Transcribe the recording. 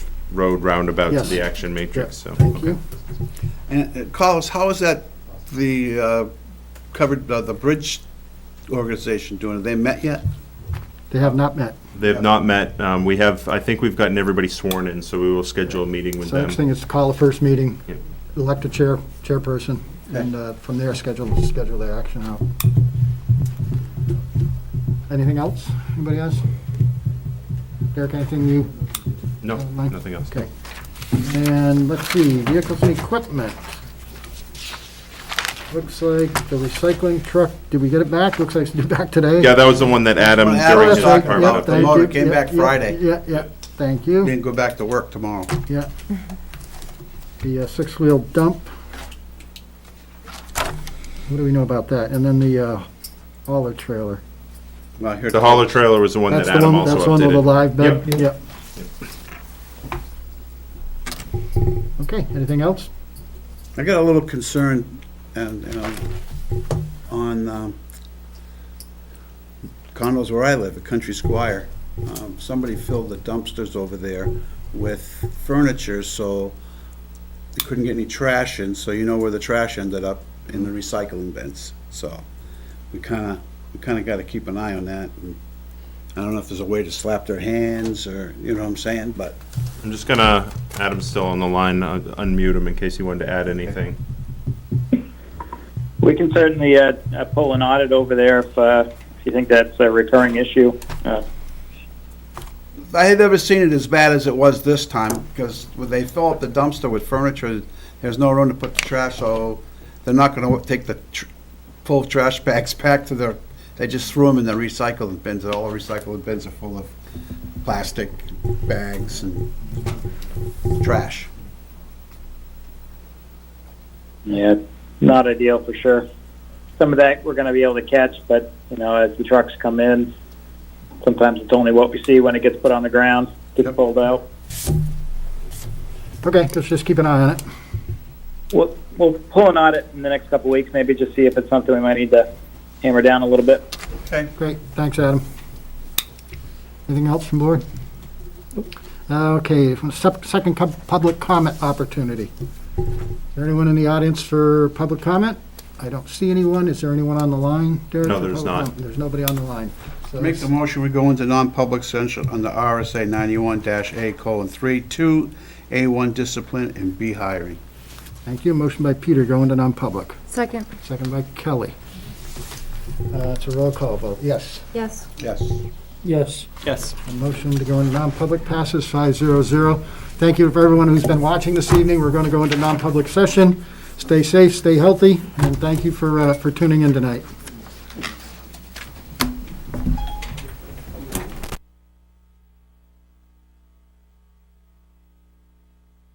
road roundabout to Yes. the action matrix, so. Thank you. And uh, Carlos, how is that, the uh, covered, uh, the bridge organization doing? Have they met yet? They have not met. They've not met, um, we have, I think we've gotten everybody sworn in, so we will schedule a meeting with So next them. thing is to call the first meeting, Yep. elect a chair, chairperson, and uh, from there, schedule, schedule their action out. Anything else? Anybody else? Derek, anything new? No, Mike? nothing else. uh, Okay. And let's see, vehicles and equipment. Looks like the recycling truck, did we get it back? Looks like it's due back today. Oh, Yeah, that was the one that Adam Well, Adam during was his talking part about of the the- thank motor you. Oh, came Yeah, back yeah, Friday. Yeah, yeah, thank you. Didn't go back to work tomorrow. Yeah. The uh, six-wheel dump. What do we know about that? And then the uh, hauler trailer. Well, I heard- The hauler trailer was the one that That's the Adam one, also updated. that's the one with the live Yep. bed? Yep. Okay, anything else? I got a little concerned, and, you know, on um, condos where I live, at Country Squire. Um, Somebody filled the dumpsters over there with furniture, so they couldn't get any trash in, so you know where the trash ended up, in the recycling bins. So we kind of, we kind of got to keep an eye on that. and I don't know if there's a way to slap their hands, or, you know what I'm saying, but I'm just gonna, Adam's still on the line, uh, unmute him in case he wanted to add anything. We can certainly uh, uh, pull an audit over there if, uh, if you think that's a recurring issue. Uh, I had never seen it as bad as it was this time, because when they fill up the dumpster with furniture, there's no room to put the trash, so they're not gonna take the tr- full trash bags back to their, they just threw them in the recycling bins, and all the recycling bins are full of plastic bags and trash. yeah, not ideal for sure. Some of that we're going to be able to catch, but you know, as the trucks come in, sometimes it's only what we see when it gets put on the ground, gets Yep. pulled out. Okay, let's just keep an eye on it. We'll, we'll pull an audit in the next couple of weeks, maybe just see if it's something we might need to hammer down a little bit. Okay. Great, thanks, Adam. Anything else from board? Okay, from sep- second com- public comment opportunity. Is there anyone in the audience for public comment? I don't see anyone. Is there anyone on the line, Derek? No, for there's public not. comment? There's nobody on the line. So Make the motion, we go into non-public session under RSA ninety-one dash A colon three, two, A one discipline and B hiring. Thank you. Motion by Peter, go into non-public. Second, Second by Kelly. Uh, It's a roll call vote. Yes. yes. Yes. Yes. Yes. A motion to go into non-public passes five zero zero. Thank you for everyone who's been watching this evening. We're going to go into non-public session. Stay safe, stay healthy, and thank you for, uh, for tuning in tonight.